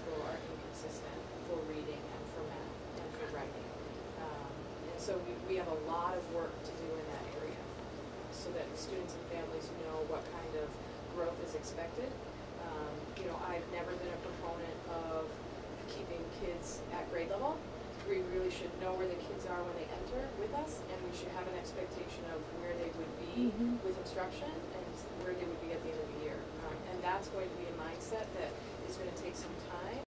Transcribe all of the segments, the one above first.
Um, So we, we have a lot of work to do in that area, so that students and families know what kind of growth is expected. Um, You know, I've never been a proponent of keeping kids at grade level. We really should know where the kids are when they enter with us, and we should have an expectation of where they would be Mhm. with instruction and where they would be at the end of the year. Um, And that's going to be a mindset that is gonna take some time,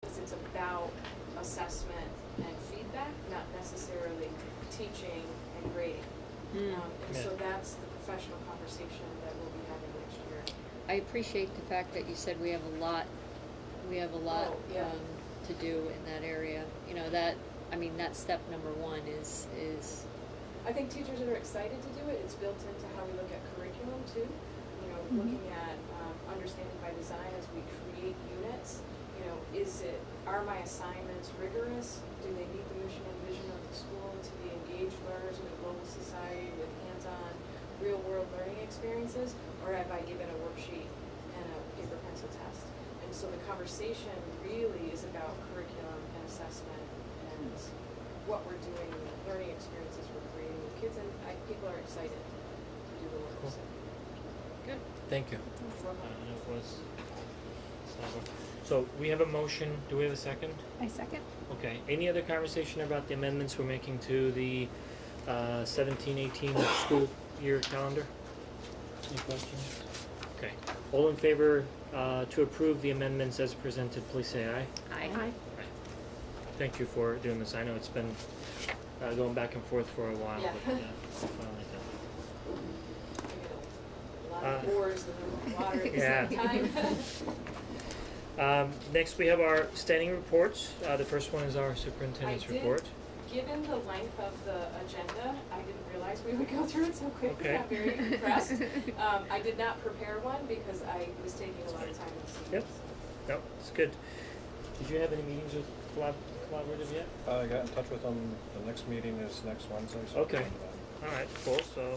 because it's about assessment and feedback, not necessarily teaching and grading. Um, and so that's the professional conversation that we'll be having next year. I appreciate the fact that you said we have a lot, we have a lot, Oh, yeah. um, to do in that area. You know, that, I mean, that's step number one is, is, I think teachers are excited to do it, it's built into how we look at curriculum too. You know, looking at, um, understanding by design as we create units, you know, is it, are my assignments rigorous? Do they meet the mission and vision of the school to be engaged learners in a global society with hands-on, real-world learning experiences? Or have I given a worksheet and a paper pencil test? And so the conversation really is about curriculum and assessment and what we're doing, the learning experiences we're creating with kids, and I, people are excited to do the work. Cool. so. good. Thank you. Well, Uh, enough was. So we have a motion. Do we have a second? I second. Okay. Any other conversation about the amendments we're making to the uh, 17-18 school year calendar? Any questions? Okay. All in favor uh, to approve the amendments as presented, please say aye. Aye. Thank you for doing this. I know it's been uh, going back and forth for a while. Yeah. But, uh, finally done. I get A lot of Uh, oars in the water at the Yeah. same time. Um, next, we have our standing reports. Uh, the first one is our I superintendent's did- report. Given the length of the agenda, I didn't realize we would go through it so quickly, Okay. I'm very impressed. Um, I did not prepare one because I was taking a lot of time this evening. Yep. No, it's good. Did you have any meetings with collab- collaborative yet? Uh, I got in touch with them, the next meeting is next Wednesday, so. um, Okay. All right, cool. So, so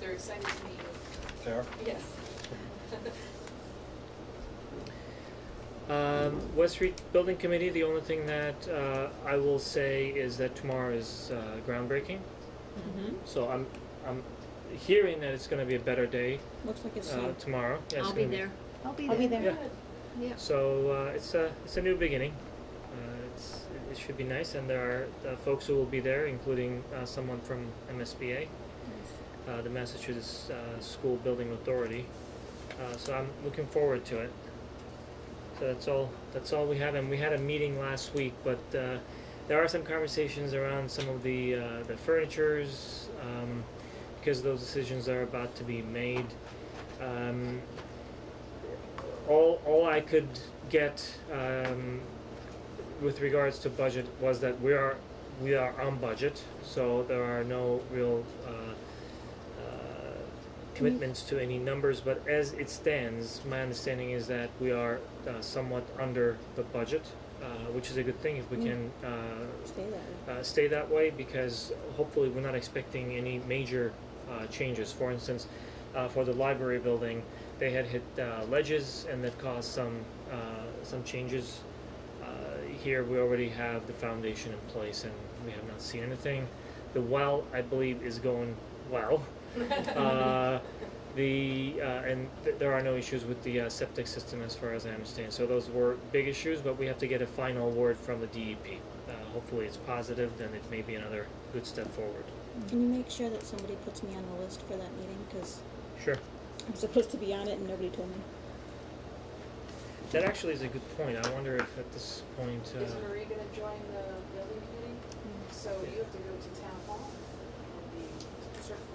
They're excited to meet you. There, Yes. um, West Street Building Committee. The only thing that uh, I will say is that tomorrow is uh, groundbreaking. So I'm I'm hearing that it's going to be a better day Looks like it's uh, soon. tomorrow. Yeah, it's I'll be gonna there. I'll be I'll be there. there. Yeah. Yeah. So uh, it's a it's a new beginning. Uh, it's, it should be nice, and there are uh, folks who will be there, including uh, someone from MSBA, uh, the Massachusetts uh, School Building Authority. Uh, so I'm looking forward to it. So that's all that's all we have, and we had a meeting last week, but uh, there are some conversations around some of the uh, the furnitures um, because those decisions are about to be made. Um, all, all I could get um, with regards to budget was that we are we are on budget, so there are no real uh, uh, commitments to any numbers. But as it stands, my understanding is that we are uh, somewhat under the budget, uh, which is a good thing if we can uh, Stay there. uh, stay that way because hopefully we're not expecting any major uh, changes. For instance, uh, for the library building, they had hit uh, ledges and that caused some uh, some changes. Uh, here we already have the foundation in place and we have not seen anything. The well, I believe, is going well. Uh, The, uh, and th- there are no issues with the uh, septic system as far as I understand. So those were big issues, but we have to get a final word from the DEP. Uh, hopefully it's positive, then it may be another good step forward. Can you make sure that somebody puts me on the list for that meeting? Because Sure. I'm supposed to be on it and nobody told me. That actually is a good point. I wonder if at this point, Is uh, Marie gonna join the building committee? Mm-hmm. So you have to go to town hall and be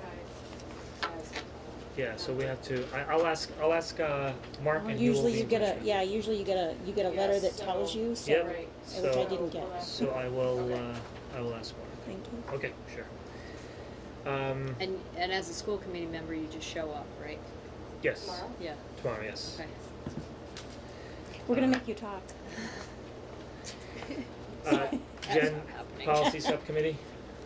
certified as. uh, a- yeah, so we have to, I, I'll ask, I'll ask, uh, Mark and he will Usually be you in get touch a, with- yeah, usually you get a, you get a letter Yes, that so- tells you, so. Yep. Right. I- which I didn't get. we'll have So to- I will, Okay. uh, I will ask Mark. Thank you. Okay, sure. Um, And, and as a school committee member, you just show up, right? yes, Tomorrow? Yeah, tomorrow, yes. okay. We're gonna make you talk. Uh, That's Jen, not happening. policy subcommittee?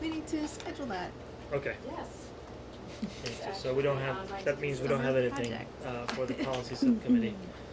We need to schedule that. Okay. Yes. Okay, so- So we don't have, that means we don't have anything, Project. uh, for the policy subcommittee. Um,